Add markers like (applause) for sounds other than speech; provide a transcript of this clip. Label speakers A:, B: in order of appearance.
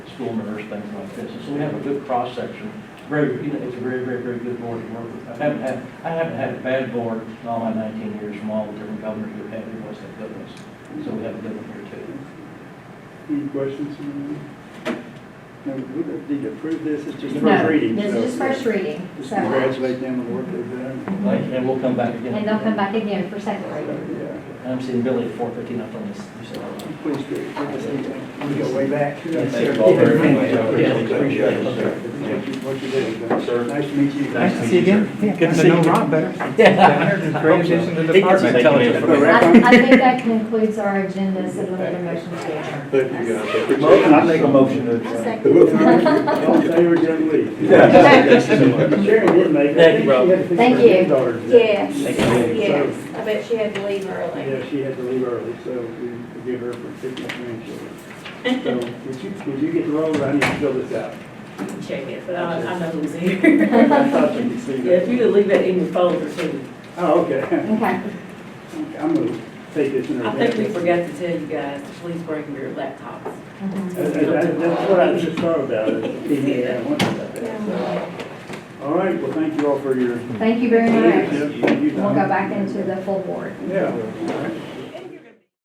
A: school nurse, things like this. And so we have a good cross-section, very, you know, it's a very, very, very good board to work with. I haven't had, I haven't had a bad board in all my nineteen years from all the different governors we've had, everyone's had good ones. So we have a good one here too.
B: Any questions? on that? No, we don't need to approve this, it's just
C: No,
B: first reading.
C: This
B: so
C: is first reading,
B: Just
C: so,
B: congratulate them on the work they've done.
A: And we'll come back again.
C: and they'll come back again for second reading.
B: So,
A: I'm seeing Billy at four fifteen up on this. you said, oh,
B: yeah, Please do, Like I said, we go way back.
A: Yes,
D: Thank you all very much. I
A: Yeah, appreciate
D: appreciate
A: it.
D: you, sir.
B: Appreciate you- what you did.
D: Sir.
B: Nice to meet you.
E: Nice to see you again. Getting to know Rob better. Transition to
A: He gets
E: department.
A: intelligent.
B: Thank you.
C: I, I think that concludes our agenda, so we'll need a motion to adjourn.
D: Thank you, guys. I appreciate it.
B: Motion, I make a motion
C: I'll second.
B: All in favor, John Lee?
D: Thank you so much.
B: Sharon did make it.
A: Thank you, Rob.
C: Thank you.
F: Yes,
B: Thank you.
F: yes. I bet she had to leave early.
B: Yeah, she had to leave early, so we give her for fifty grandchildren. So, would you, would you get the roll, I need to fill this
F: (laughs)
B: out.
F: Check it, but I, I know who's here.
B: I thought you could see
F: (laughs) Yeah, if
B: that.
F: you could leave that in your folder too.
B: Oh, okay. (laughs)
C: Okay,
B: Okay, I'm gonna take this in a
F: I think we forgot to tell you guys, to please bring your laptops.
C: Mhm.
B: That- Uh, that- That's what I just thought about, it. Yeah, I wondered about that, so. All right, well, thank you all for your
C: thank you very much.
B: leadership.
C: We'll go back into the full board.
B: Yeah. all right.